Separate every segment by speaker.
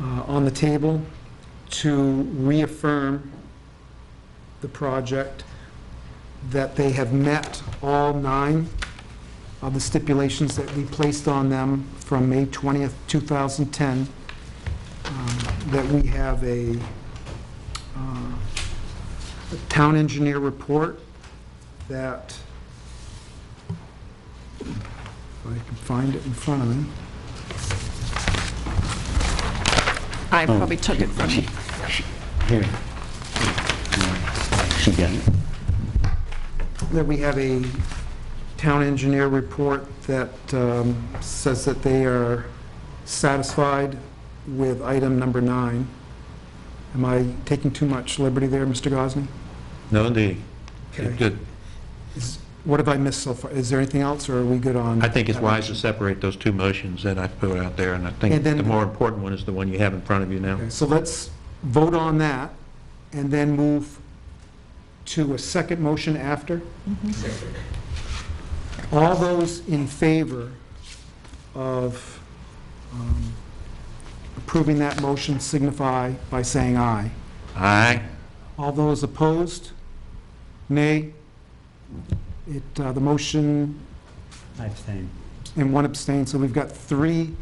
Speaker 1: uh, on the table to reaffirm the project, that they have met all nine of the stipulations that we placed on them from May 20th, 2010, um, that we have a uh, a town engineer report that, if I can find it in front of me.
Speaker 2: I
Speaker 3: Oh,
Speaker 2: probably took it from you.
Speaker 3: Here. She got it.
Speaker 1: that we have a town engineer report that um, says that they are satisfied with item number nine. Am I taking too much liberty there, Mr. Gosney?
Speaker 4: No, they,
Speaker 1: Okay.
Speaker 4: good.
Speaker 1: Is- What have I missed so far? Is there anything else, or are we good on?
Speaker 4: I think it's wise to separate those two motions that I put out there, and I think
Speaker 1: And then-
Speaker 4: the more important one is the one you have in front of you now.
Speaker 1: Okay, So let's vote on that, and then move to a second motion after. All those in favor of um, approving that motion signify by saying aye.
Speaker 4: Aye.
Speaker 1: All those opposed, nay. It, uh, the motion
Speaker 3: I abstain.
Speaker 1: and one abstain, so we've got three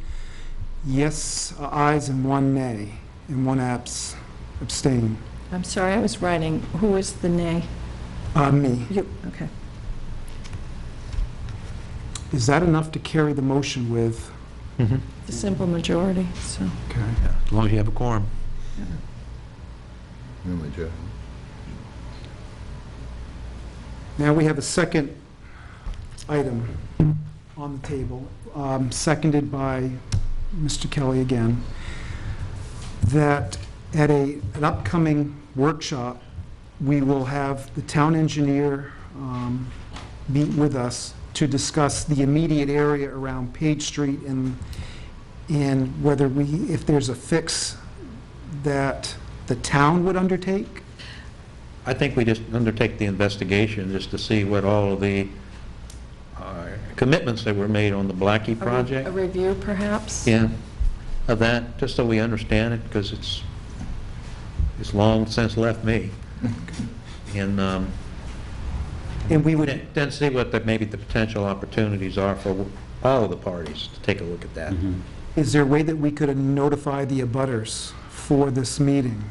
Speaker 1: yes uh, ayes and one nay, and one abs, abstain.
Speaker 2: I'm sorry, I was writing, who was the nay?
Speaker 1: Uh, me.
Speaker 2: You, okay.
Speaker 1: Is that enough to carry the motion with?
Speaker 4: Mhm.
Speaker 2: The simple majority, so.
Speaker 1: Okay.
Speaker 4: Yeah, As long as you have a quorum.
Speaker 5: Really, Jeff?
Speaker 1: Now we have a second item on the table, um, seconded by Mr. Kelly again, that at a, an upcoming workshop, we will have the town engineer um, meet with us to discuss the immediate area around Page Street and, and whether we, if there's a fix that the town would undertake.
Speaker 4: I think we just undertake the investigation just to see what all of the uh, commitments that were made on the Blackie
Speaker 2: A re- A
Speaker 4: project,
Speaker 2: review, perhaps?
Speaker 4: yeah, of that, just so we understand it, because it's, it's long since left me. And, um,
Speaker 1: And we would,
Speaker 4: Then then see what the, maybe the potential opportunities are for all of the parties to take a look at
Speaker 3: Mm-hmm.
Speaker 4: that.
Speaker 1: Is there a way that we could notify the abutters for this meeting?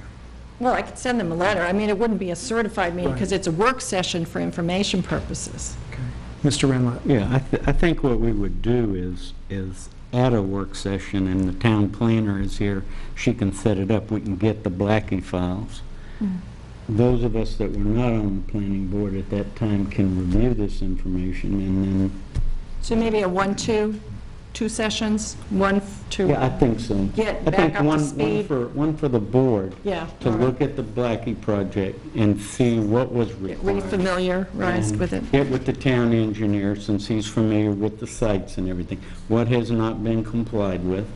Speaker 2: Well, I could send them a letter. I mean, it wouldn't be a certified meeting
Speaker 1: Right.
Speaker 2: because it's a work session for information purposes.
Speaker 1: Mr. Renlet?
Speaker 3: Yeah, I, th- I think what we would do is, is at a work session, and the town planner is here, she can set it up, we can get the Blackie files.
Speaker 2: Mm-hmm.
Speaker 3: Those of us that were not on the planning board at that time can review this information, and then,
Speaker 2: So maybe a one, two, two sessions, one, f- two.
Speaker 3: yeah, I think so.
Speaker 2: Get
Speaker 3: I
Speaker 2: back
Speaker 3: think
Speaker 2: up to
Speaker 3: one- One
Speaker 2: speed.
Speaker 3: for, one for the board,
Speaker 2: Yeah.
Speaker 3: to
Speaker 2: all right.
Speaker 3: look at the Blackie project and see what was
Speaker 2: Get
Speaker 3: required.
Speaker 2: Refamiliarized
Speaker 3: and
Speaker 2: with it.
Speaker 3: Get with the town engineer, since he's familiar with the sites and everything. What has not been complied with,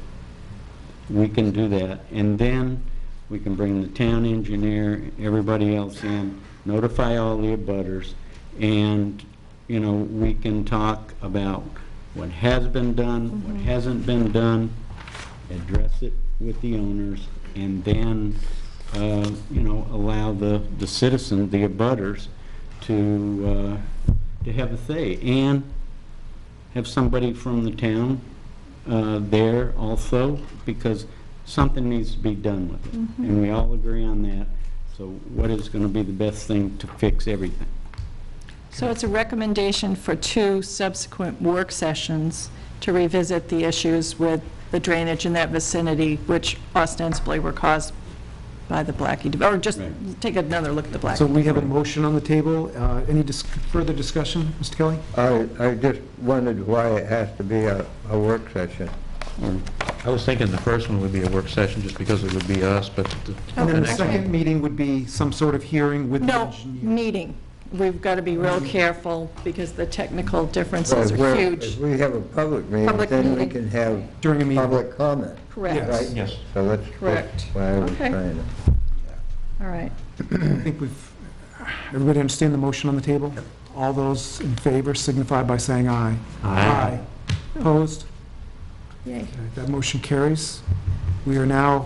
Speaker 3: we can do that. And then we can bring the town engineer, everybody else in, notify all the abutters, and, you know, we can talk about what has been done,
Speaker 2: Mm-hmm.
Speaker 3: what hasn't been done, address it with the owners, and then, uh, you know, allow the, the citizen, the abutters, to, uh, to have a say. And have somebody from the town uh, there also, because something needs to be done with it. And we all agree on that. So what is going to be the best thing to fix everything?
Speaker 2: So it's a recommendation for two subsequent work sessions to revisit the issues with the drainage in that vicinity, which ostensibly were caused by the Blackie, de- or just
Speaker 3: Right.
Speaker 2: take another look at the
Speaker 1: So
Speaker 2: Blackie.
Speaker 1: we have a motion on the table. Uh, Any dis- further discussion, Mr. Kelly?
Speaker 5: I, I just wondered why it has to be a, a work session.
Speaker 3: Or-
Speaker 4: I was thinking the first one would be a work session, just because it would be us, but the-
Speaker 1: And
Speaker 4: the
Speaker 1: then the
Speaker 4: next one,
Speaker 1: second meeting would be some sort of hearing with the
Speaker 2: No,
Speaker 1: engineer.
Speaker 2: meeting. We've got to be real careful because the technical differences
Speaker 5: If we're-
Speaker 2: are
Speaker 5: If
Speaker 2: huge.
Speaker 5: we have a public meeting,
Speaker 2: Public
Speaker 5: then we
Speaker 2: meeting.
Speaker 5: can have
Speaker 1: During a meeting.
Speaker 5: public comment.
Speaker 2: Correct.
Speaker 5: right?
Speaker 4: Yes.
Speaker 5: So that's that's
Speaker 2: Correct.
Speaker 5: what I was
Speaker 2: Okay.
Speaker 5: trying to.
Speaker 2: All right.
Speaker 1: I think we've, everybody understand the motion on the table? All those in favor signify by saying aye. Aye. Opposed?
Speaker 2: Yay.
Speaker 1: Okay, That motion carries. We are now